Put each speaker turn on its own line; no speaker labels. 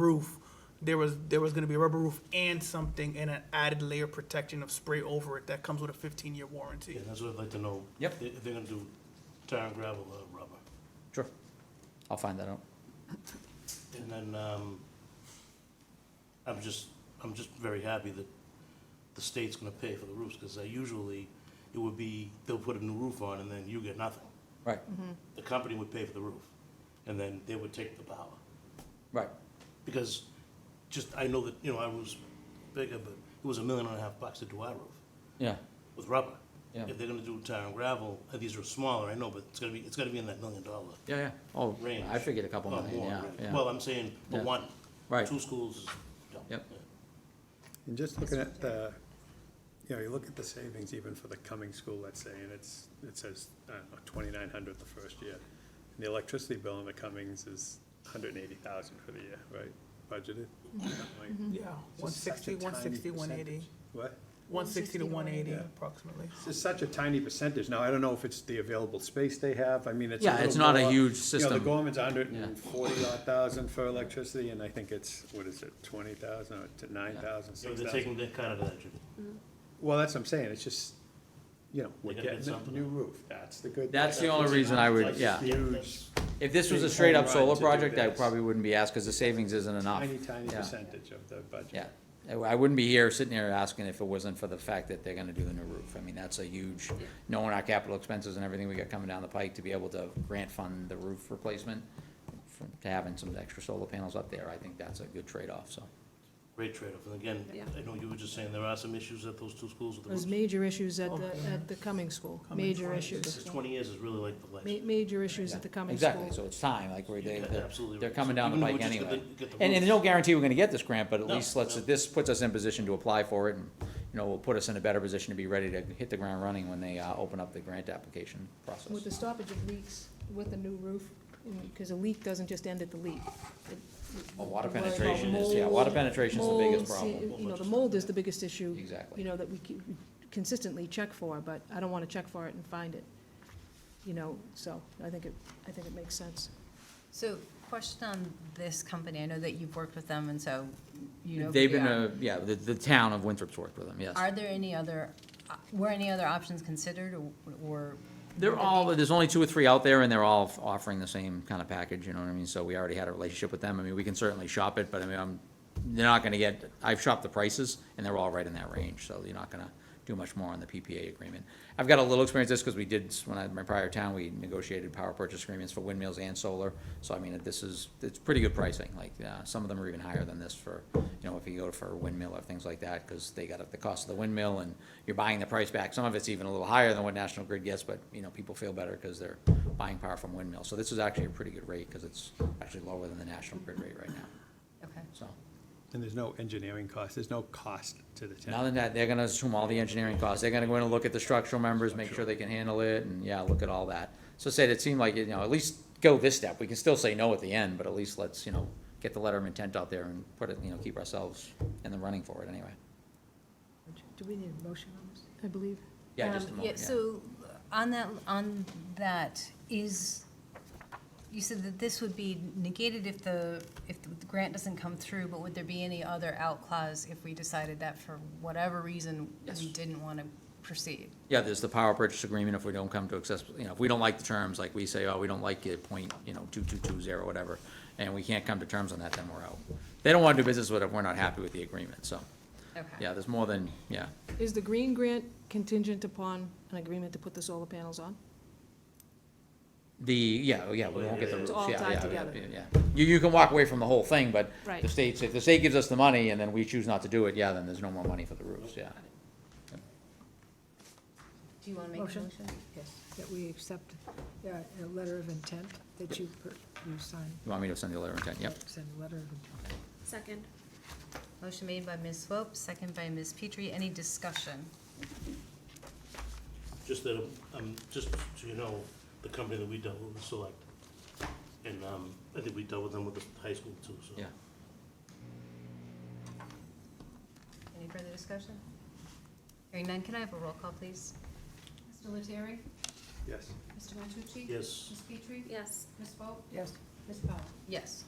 roof, there was, there was gonna be a rubber roof and something and an added layer protection of spray over it that comes with a fifteen-year warranty.
Yeah, that's what I'd like to know.
Yep.
If they're gonna do tar and gravel or rubber.
Sure. I'll find that out.
And then, um, I'm just, I'm just very happy that the state's gonna pay for the roofs, because usually it would be, they'll put a new roof on and then you get nothing.
Right,
The company would pay for the roof, and then they would take the power.
right.
Because just, I know that, you know, I was bigger, but it was a million and a half bucks to do our roof
Yeah,
with rubber.
Yeah.
If they're gonna do tar and gravel, uh, these are smaller, I know, but it's gonna be, it's gonna be in that million dollar
yeah, yeah. Oh,
range.
I figured a couple
Oh,
million,
more,
yeah,
right. Well,
yeah.
I'm saying, but
Yeah.
one.
Right.
Two schools is, no.
Yep.
And just looking at the, you know, you look at the savings even for the coming school, let's say, and it's, it says, I don't know, twenty-nine hundred the first year. And the electricity bill in the Cummings is hundred and eighty thousand for the year, right, budgeted? Like,
Yeah, one
just such a
sixty, one sixty,
tiny
one eighty,
percentage. What?
one sixty to one eighty
160.
approximately.
It's just such a tiny percentage. Now, I don't know if it's the available space they have. I mean, it's a
Yeah, it's
little
not a
more-
huge
You know,
system.
the Gorman's a hundred and forty odd thousand for electricity, and I think it's, what is it, twenty thousand or to nine thousand,
So
six
they're
thousand?
taking that kind of attitude.
Well, that's what I'm saying, it's just, you know, we're
gotta get
getting a
something.
new roof, that's the good.
That's
thing.
the only reason I would, yeah.
Huge,
If this was a
Big
straight up
home
solar
run to do
project, I
this.
probably wouldn't be asked, cause the savings isn't enough.
tiny, tiny
Yeah,
percentage of the budget.
Yeah. I- I wouldn't be here sitting here asking if it wasn't for the fact that they're gonna do the new roof. I mean, that's a huge, knowing our capital expenses and everything we got coming down the pike to be able to grant fund the roof replacement. for- To having some extra solar panels up there, I think that's a good trade-off, so.
Great trade-off. And again,
Yeah.
I know you were just saying there are some issues at those two schools with the
There's
roofs.
major issues at
Oh,
the,
yeah.
at the Cumming School,
Cumming
major
School.
This
issues.
is twenty years is really like the
Ma-
last.
major issues at the Cumming School.
Exactly, so it's time, like, we're, they,
Yeah,
they're-
absolutely
they're
right.
coming
So
down the
even if we
pike
just get
anyway.
the- get the
And, and
roof-
there's no guarantee we're gonna get this grant, but at
No,
least lets,
no.
it- this puts us in position to apply for it, and, you know, will put us in a better position to be ready to hit the ground running when they, uh, open up the grant application
With the
process.
stoppage of leaks, with the new roof, because a leak doesn't just end at the leak. It-
Well, water
we're worried about
penetration is, yeah, water
mold,
penetration's the biggest
molds,
problem.
You know, the mold is the biggest issue.
Exactly.
You know, that we c- consistently check for, but I don't want to check for it and find it. You know, so I think it, I think it makes sense.
So question on this company, I know that you've worked with them and so you know. who
They've
they
been,
are.
uh, yeah, the, the town of Winthrop's worked with them, yes.
Are there any other, uh, were any other options considered or- or?
They're all, there's only two or three out there, and they're all offering the same kind of package, you know what I mean? So we already had a relationship with them. I mean, we can certainly shop it, but I mean, I'm, they're not gonna get, I've shopped the prices, and they're all right in that range, so you're not gonna do much more on the PPA agreement. I've got a little experience with this, because we did, when I, my prior town, we negotiated power purchase agreements for windmills and solar. So I mean, this is, it's pretty good pricing, like, uh, some of them are even higher than this for, you know, if you go for a windmill or things like that, because they got up the cost of the windmill, and you're buying the price back. Some of it's even a little higher than what National Grid gets, but, you know, people feel better because they're buying power from windmills. So this is actually a pretty good rate, because it's actually lower than the National Grid rate right now,
Okay.
so.
And there's no engineering cost, there's no cost to the
Now
town.
than that, they're gonna assume all the engineering costs, they're gonna go in and look at the structural members, make sure they can handle it, and yeah, look at all that. So said, it seemed like, you know, at least go this step, we can still say no at the end, but at least let's, you know, get the letter of intent out there and put it, you know, keep ourselves in the running for it anyway.
Do we need a motion on this? I believe.
Yeah,
Um,
just a moment, yeah.
So on that, on that, is, you said that this would be negated if the, if the grant doesn't come through, but would there be any other out clause if we decided that for whatever reason
Yes.
we didn't want to proceed?
Yeah, there's the power purchase agreement if we don't come to access, you know, if we don't like the terms, like we say, oh, we don't like it, point, you know, two-two-two-zero, whatever, and we can't come to terms on that, then we're out. They don't wanna do business with it if we're not happy with the agreement, so,
Okay.
yeah, there's more than, yeah.
Is the green grant contingent upon an agreement to put the solar panels on?
The, yeah, oh, yeah, we won't get the
It's
roof,
all
yeah,
tied
yeah,
together.
yeah, yeah. You, you can walk away from the whole thing, but the
Right.
state's, if the state gives us the money and then we choose not to do it, yeah, then there's no more money for the roofs, yeah.
Do you want to make a
Motion?
motion?
Yes, that we accept uh, a letter of intent that you, per- you signed.
You want me to send you a letter of intent, yep.
Send a letter of intent.
Second.
Motion made by Ms. Swope, second by Ms. Petrie. Any discussion?
Just that, um, just so you know, the company that we dealt with was Select. And, um, I think we dealt with them with the high school too, so.
Yeah.
Any further discussion? Hearing none, can I have a roll call, please?
Mr. Lettieri?
Yes.
Mr. Matucci?
Yes,
Ms. Petrie? Yes. Ms. Swope?
Yes,
Ms. Powell?
Yes.